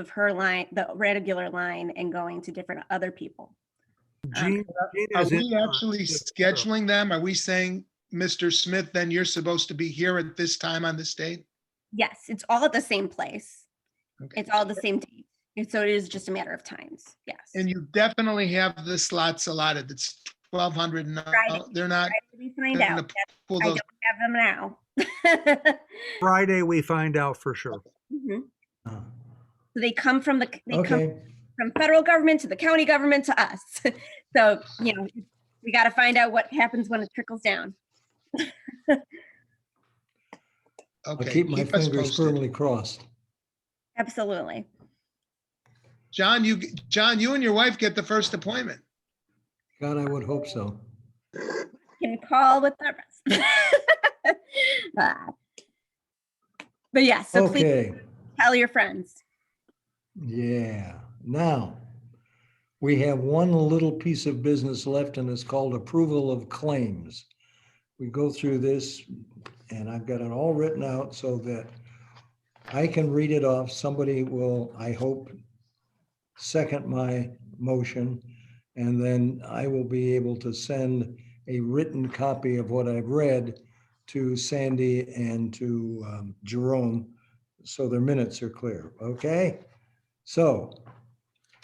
of her line, the regular line, and going to different other people. Gene, Gene Are is in we on actually this, too. scheduling them? Are we saying, Mr. Smith, then you're supposed to be here at this time on this date? Yes, it's all at the same place. Okay. It's all the same date. And so it is just a matter of times. Yes. And you definitely have the slots allotted. It's twelve hundred and Right. they're not We find they're out. gonna that pull I those. don't have them now. Friday, we find out for sure. Mhm. Uh, So They come from the, c- they come Okay, from federal government to the county government to us. So, you know, we got to find out what happens when it trickles down. I'll Okay, keep my keep us fingers posted. firmly crossed. Absolutely. John, you, John, you and your wife get the first appointment. God, I would hope so. can call with the rest. Ah. But yeah, so please Okay, tell your friends. yeah. Now, we have one little piece of business left and it's called approval of claims. We go through this and I've got it all written out so that I can read it off. Somebody will, I hope, second my motion. And then I will be able to send a written copy of what I've read to Sandy and to um, Jerome, so their minutes are clear, okay? So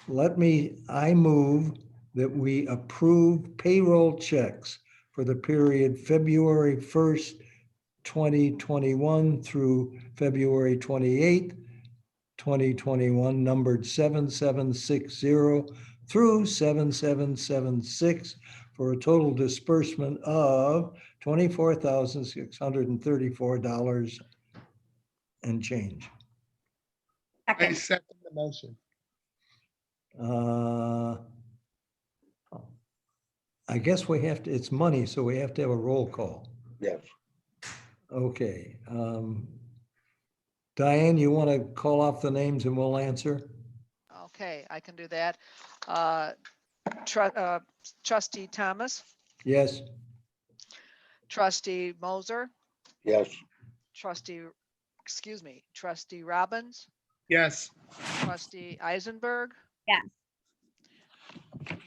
let me, I move that we approve payroll checks for the period February 1st, 2021 through February 28th, 2021, numbered 7760 through 7776 for a total disbursement of twenty-four thousand six hundred and thirty-four dollars and change. I Second, second the motion. Uh, I guess we have to, it's money, so we have to have a roll call. Yes. Okay. um, Diane, you want to call off the names and we'll answer? Okay, I can do that. Uh, tru- uh, Trustee Thomas, Yes? trustee Moser, Yes, trustee, excuse me, trustee Robbins, Yes, trustee Eisenberg. Yes.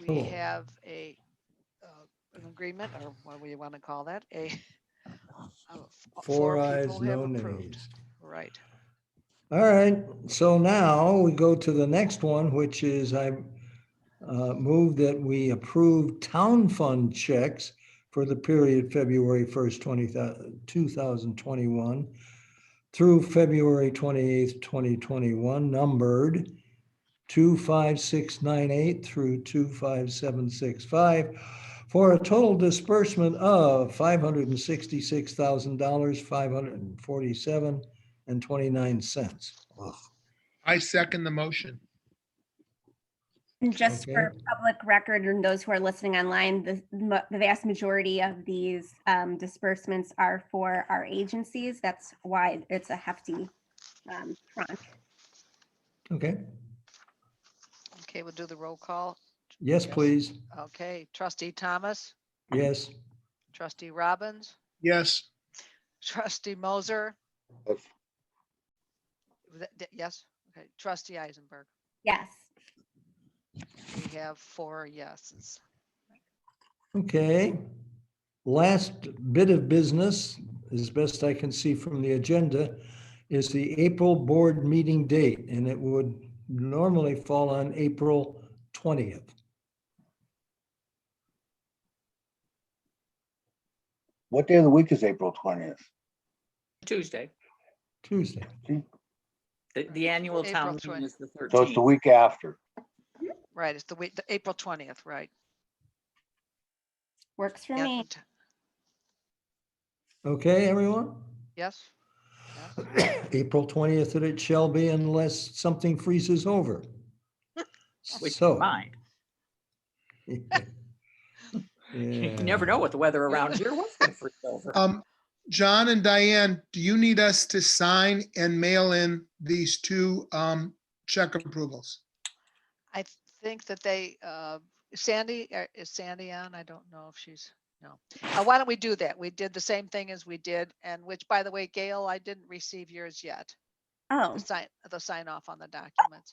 We Cool. have a, uh, an agreement, or what do you want to call that? A. a f- Four eyes, people have no approved. nays. Right. All right, so now we go to the next one, which is I uh, move that we approve town fund checks for the period February 1st, 20 2021 through February 28th, 2021, numbered 25698 through 25765, for a total disbursement of $566,547 and 29 cents. I second the motion. and just for public record and those who are listening online, the, mo- the vast majority of these um, disbursements are for our agencies. That's why it's a hefty um, tranche. Okay, Okay, we'll do the roll call. yes, Yes. please. Okay, trustee Thomas, Yes, trustee Robbins, Yes, trustee Moser. yes, Was that- that- Yes, okay, trustee Eisenberg. Yes. We have four yeses. okay. Last bit of business, as best I can see from the agenda, is the April board meeting date, and it would normally fall on April 20th. what day of the week is April twentieth? Tuesday. Tuesday. The, the annual April town meeting 20. is the So it's the 13th. week after. Right, it's the week, the April twentieth, right? Works for yeah, me. t- Okay, everyone? Yes, April 20th that it shall be unless something freezes over. Which is So. fine. You never know what the weather around here was gonna freeze over. um, John and Diane, do you need us to sign and mail in these two, um, check approvals? I think that they, uh, Sandy, uh, is Sandy on? I don't know if she's, no. Uh, Why don't we do that? We did the same thing as we did, and which, by the way, Gail, I didn't receive yours yet. Oh, The sign, the sign off on the documents.